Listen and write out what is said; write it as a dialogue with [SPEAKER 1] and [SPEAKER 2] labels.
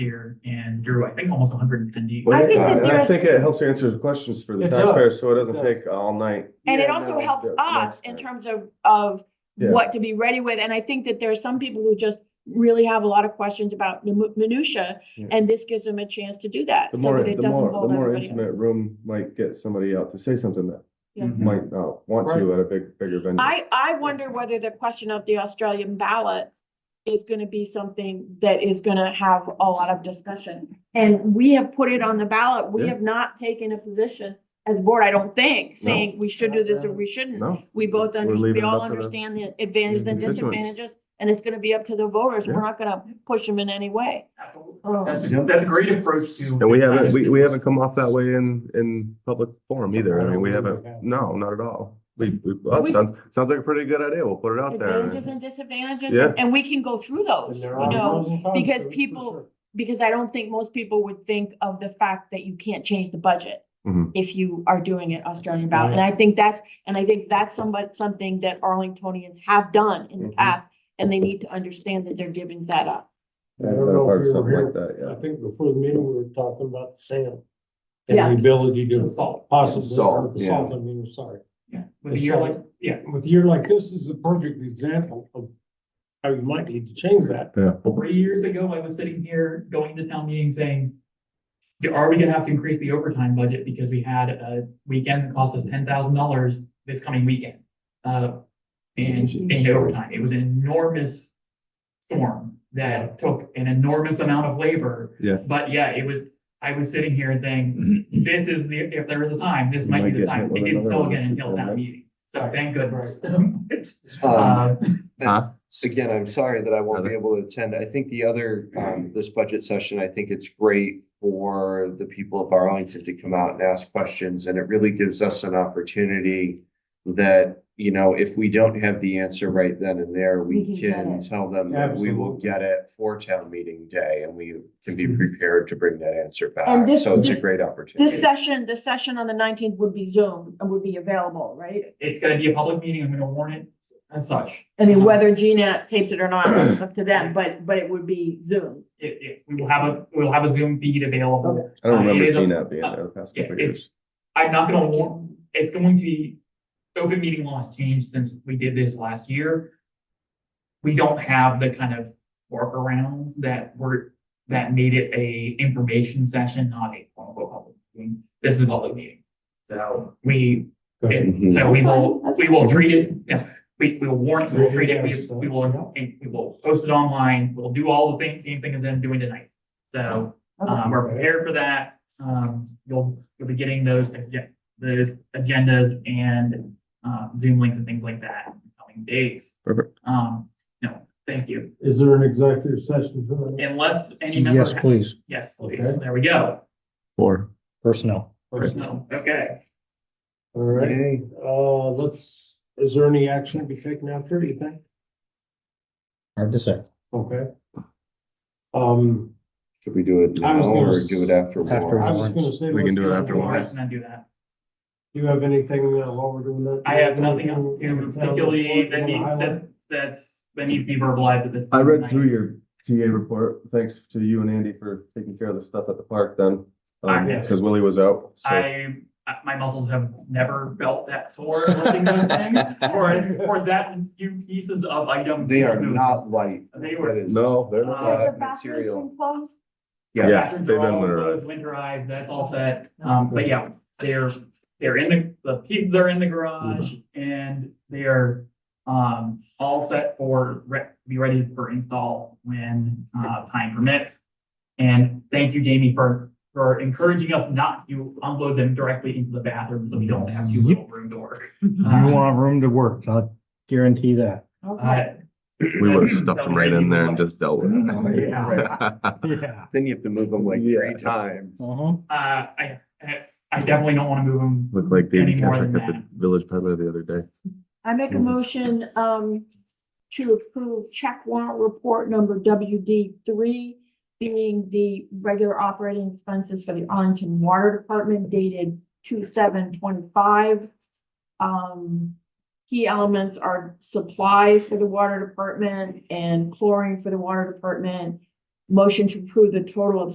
[SPEAKER 1] here and drew, I think, almost hundred and fifty.
[SPEAKER 2] Well,
[SPEAKER 3] I think
[SPEAKER 2] yeah,
[SPEAKER 3] that
[SPEAKER 2] and
[SPEAKER 3] there
[SPEAKER 2] I
[SPEAKER 3] is-
[SPEAKER 2] think it helps answer the questions for the
[SPEAKER 4] It does.
[SPEAKER 2] taxpayers, so it doesn't
[SPEAKER 4] Does.
[SPEAKER 2] take all night.
[SPEAKER 3] And it
[SPEAKER 4] Yeah,
[SPEAKER 3] also
[SPEAKER 4] no,
[SPEAKER 3] helps
[SPEAKER 2] that- that's
[SPEAKER 3] us in
[SPEAKER 2] fair.
[SPEAKER 3] terms of, of
[SPEAKER 2] Yeah.
[SPEAKER 3] what to be ready with. And I think that there are some people who just really have a lot of questions about minu- minutia,
[SPEAKER 2] Yeah.
[SPEAKER 3] and this gives them a chance to do that.
[SPEAKER 2] The
[SPEAKER 3] so
[SPEAKER 2] more,
[SPEAKER 3] that it
[SPEAKER 2] the
[SPEAKER 3] doesn't
[SPEAKER 2] more, the
[SPEAKER 3] hold
[SPEAKER 2] more
[SPEAKER 3] everybody else.
[SPEAKER 2] intimate room might get somebody out to say something that
[SPEAKER 3] Yeah.
[SPEAKER 2] might not want to at a big, bigger venue.
[SPEAKER 3] I, I wonder whether the question of the Australian ballot is gonna be something that is gonna have a lot of discussion. And we have put it on the ballot. We
[SPEAKER 2] Yeah.
[SPEAKER 3] have not taken a position as board, I don't think, saying we should do this or we shouldn't.
[SPEAKER 2] No,
[SPEAKER 3] We both,
[SPEAKER 2] We're
[SPEAKER 3] under-
[SPEAKER 2] leaving
[SPEAKER 3] we
[SPEAKER 2] it
[SPEAKER 3] all
[SPEAKER 2] up to the
[SPEAKER 3] understand the advantages and
[SPEAKER 2] constituents.
[SPEAKER 3] disadvantages, and it's gonna be up to the voters. We're
[SPEAKER 2] Yeah.
[SPEAKER 3] not gonna push them in any way.
[SPEAKER 1] That's,
[SPEAKER 3] Um,
[SPEAKER 1] a- that's a great approach to.
[SPEAKER 2] and we haven't, we, we haven't come off that way in, in public forum either. I mean, we haven't, no, not at all. We, we, well,
[SPEAKER 3] We-
[SPEAKER 2] sounds, sounds like a pretty good idea. We'll put it out there.
[SPEAKER 3] Advantages and disadvantages,
[SPEAKER 2] Yeah.
[SPEAKER 3] and we can go through those, you know? because people- Because I don't think most people would think of the fact that you can't change the budget
[SPEAKER 2] Mhm.
[SPEAKER 3] if you are doing it Australian ballot. And I think that's, and I think that's somewhat, something that Arlingtonians have done in the
[SPEAKER 2] Mhm.
[SPEAKER 3] past, and they need to understand that they're giving that up.
[SPEAKER 2] It's not part of something like that,
[SPEAKER 4] I
[SPEAKER 2] yeah.
[SPEAKER 4] think before the meeting, we were talking about the sale.
[SPEAKER 3] Yeah.
[SPEAKER 4] And the ability to
[SPEAKER 1] Salt,
[SPEAKER 4] possibly,
[SPEAKER 2] Salt,
[SPEAKER 4] the
[SPEAKER 2] yeah.
[SPEAKER 4] salt, I mean, I'm sorry.
[SPEAKER 1] yeah, with a year like, yeah,
[SPEAKER 4] With a year like this is a perfect example of how you might need to change that.
[SPEAKER 1] three years ago, I was sitting here going to town meeting saying, are we gonna have to increase the overtime budget because we had a weekend that cost us ten thousand dollars this coming weekend? Uh, and, and overtime, it was an enormous storm that took an enormous amount of labor.
[SPEAKER 2] Yeah.
[SPEAKER 1] But yeah, it was, I was sitting here and saying, this is the, if there is a time, this
[SPEAKER 2] You
[SPEAKER 1] might
[SPEAKER 2] might
[SPEAKER 1] be the
[SPEAKER 2] get
[SPEAKER 1] time,
[SPEAKER 2] hit with
[SPEAKER 1] it didn't
[SPEAKER 2] another
[SPEAKER 1] snow
[SPEAKER 2] one
[SPEAKER 1] again
[SPEAKER 2] this
[SPEAKER 1] until
[SPEAKER 2] weekend,
[SPEAKER 1] town
[SPEAKER 2] right?
[SPEAKER 1] meeting, so thank goodness.
[SPEAKER 5] Um,
[SPEAKER 1] Uh,
[SPEAKER 2] Huh?
[SPEAKER 5] Again, I'm sorry that I won't be able to attend. I think the other, um, this budget session, I think it's great for the people of Arlington to come out and ask questions, and it really gives us an opportunity that, you know, if we don't have the answer right then and there,
[SPEAKER 3] We
[SPEAKER 5] we
[SPEAKER 3] can get
[SPEAKER 5] can
[SPEAKER 3] it.
[SPEAKER 5] tell them that we will
[SPEAKER 4] Absolutely. Mm-hmm.
[SPEAKER 5] get it for town meeting day, and we can be prepared to bring that answer
[SPEAKER 3] And
[SPEAKER 5] back.
[SPEAKER 3] this-
[SPEAKER 5] So it's a
[SPEAKER 3] this-
[SPEAKER 5] great opportunity.
[SPEAKER 3] This session, the session on the nineteenth would be Zoom and would be available, right?
[SPEAKER 1] it's gonna be a public meeting, I'm gonna warn it as such. Um,
[SPEAKER 3] I mean, whether Gina tapes it or not, that's up to them, but, but it would be Zoom.
[SPEAKER 1] It, it, we will have a, we'll have a Zoom feed available.
[SPEAKER 2] I don't
[SPEAKER 1] Uh, it
[SPEAKER 2] remember
[SPEAKER 1] is a-
[SPEAKER 2] seeing that being there the past
[SPEAKER 1] yeah,
[SPEAKER 2] couple of
[SPEAKER 1] it's-
[SPEAKER 2] years.
[SPEAKER 1] I'm not gonna warn, it's going to be, open meeting law has changed since we did this last year. We don't have the kind of workarounds that were, that made it a information session, not a quote unquote public meeting. This is a public meeting. So we,
[SPEAKER 6] Mm-hmm.
[SPEAKER 1] it- so we will, we will treat it, yeah, we, we will warn it, we'll treat it, we, we will, we will post it online, we'll do all the things, same thing as them doing tonight. So.
[SPEAKER 3] Okay.
[SPEAKER 1] Um, we're prepared for that. Um, you'll, you'll be getting those, agen- those agendas and, uh, Zoom links and things like that in coming days.
[SPEAKER 2] Perfect.
[SPEAKER 1] Um, no, thank you.
[SPEAKER 4] Is there an executive session? tonight?
[SPEAKER 1] Unless any member.
[SPEAKER 6] Yes, please,
[SPEAKER 1] Yes, please. There we go.
[SPEAKER 2] Or
[SPEAKER 6] personnel.
[SPEAKER 1] No, Okay.
[SPEAKER 4] All right,
[SPEAKER 5] Yay.
[SPEAKER 4] uh, let's, is there any action to be taken after, do you think?
[SPEAKER 6] Hard to say.
[SPEAKER 4] Okay. Um,
[SPEAKER 5] Should we do it
[SPEAKER 4] I was
[SPEAKER 5] now
[SPEAKER 4] gonna
[SPEAKER 5] or
[SPEAKER 4] s-
[SPEAKER 5] do it after
[SPEAKER 6] After
[SPEAKER 4] I
[SPEAKER 5] warrants?
[SPEAKER 4] was just gonna say.
[SPEAKER 2] We can
[SPEAKER 4] let's
[SPEAKER 2] do it
[SPEAKER 4] go
[SPEAKER 2] after
[SPEAKER 4] on.
[SPEAKER 2] warrants.
[SPEAKER 1] Let's not do that.
[SPEAKER 4] Do you have anything uh, while we're doing that?
[SPEAKER 1] I have nothing else to particularly that needs, that, that's, that needs to be verbalized at this.
[SPEAKER 2] I read
[SPEAKER 1] point.
[SPEAKER 2] through your TA report. Thanks to you and Andy for taking care of the stuff at the park then.
[SPEAKER 1] I
[SPEAKER 2] Um,
[SPEAKER 1] have-
[SPEAKER 2] cause Willie was out. so-
[SPEAKER 1] I, uh, my muscles have never felt that sore lifting those things or, or that few pieces of item.
[SPEAKER 5] They are not light.
[SPEAKER 1] They were-
[SPEAKER 5] That is-
[SPEAKER 2] No, they're
[SPEAKER 1] Uh,
[SPEAKER 2] not.
[SPEAKER 3] Has the
[SPEAKER 5] Uh,
[SPEAKER 3] bathrooms
[SPEAKER 5] material.
[SPEAKER 3] been closed?
[SPEAKER 5] Yeah.
[SPEAKER 2] Yeah.
[SPEAKER 1] Bathrooms
[SPEAKER 2] they've
[SPEAKER 1] are
[SPEAKER 2] been
[SPEAKER 1] all
[SPEAKER 2] winterized.
[SPEAKER 1] closed, Winterized, that's all set. Um, but yeah, they're, they're in the, the pieces are in the garage and they are, um, all set for, re- be ready for install when, uh, time permits. And thank you, Jamie, for, for encouraging us not to unload them directly into the bathroom so we don't have too little room door. Uh,
[SPEAKER 6] You want room to work, I guarantee that.
[SPEAKER 3] Okay.
[SPEAKER 1] Uh,
[SPEAKER 2] We would have stuffed them right in there and just dealt with
[SPEAKER 1] Yeah.
[SPEAKER 2] it.
[SPEAKER 6] Yeah.
[SPEAKER 5] Then you have to move them like
[SPEAKER 2] Yeah.
[SPEAKER 5] three times.
[SPEAKER 6] Uh-huh.
[SPEAKER 1] Uh, I, I- I definitely don't want to move them.
[SPEAKER 2] Looked like David
[SPEAKER 1] Any more
[SPEAKER 2] Patrick
[SPEAKER 1] than
[SPEAKER 2] at the
[SPEAKER 1] that.
[SPEAKER 2] village peddler the other day.
[SPEAKER 3] I make a motion, um, to approve check warrant report number WD three, being the regular operating expenses for the Arlington Water Department dated two seven twenty-five. Um, key elements are supplies for the water department and chlorine for the water department, Motion to approve the total of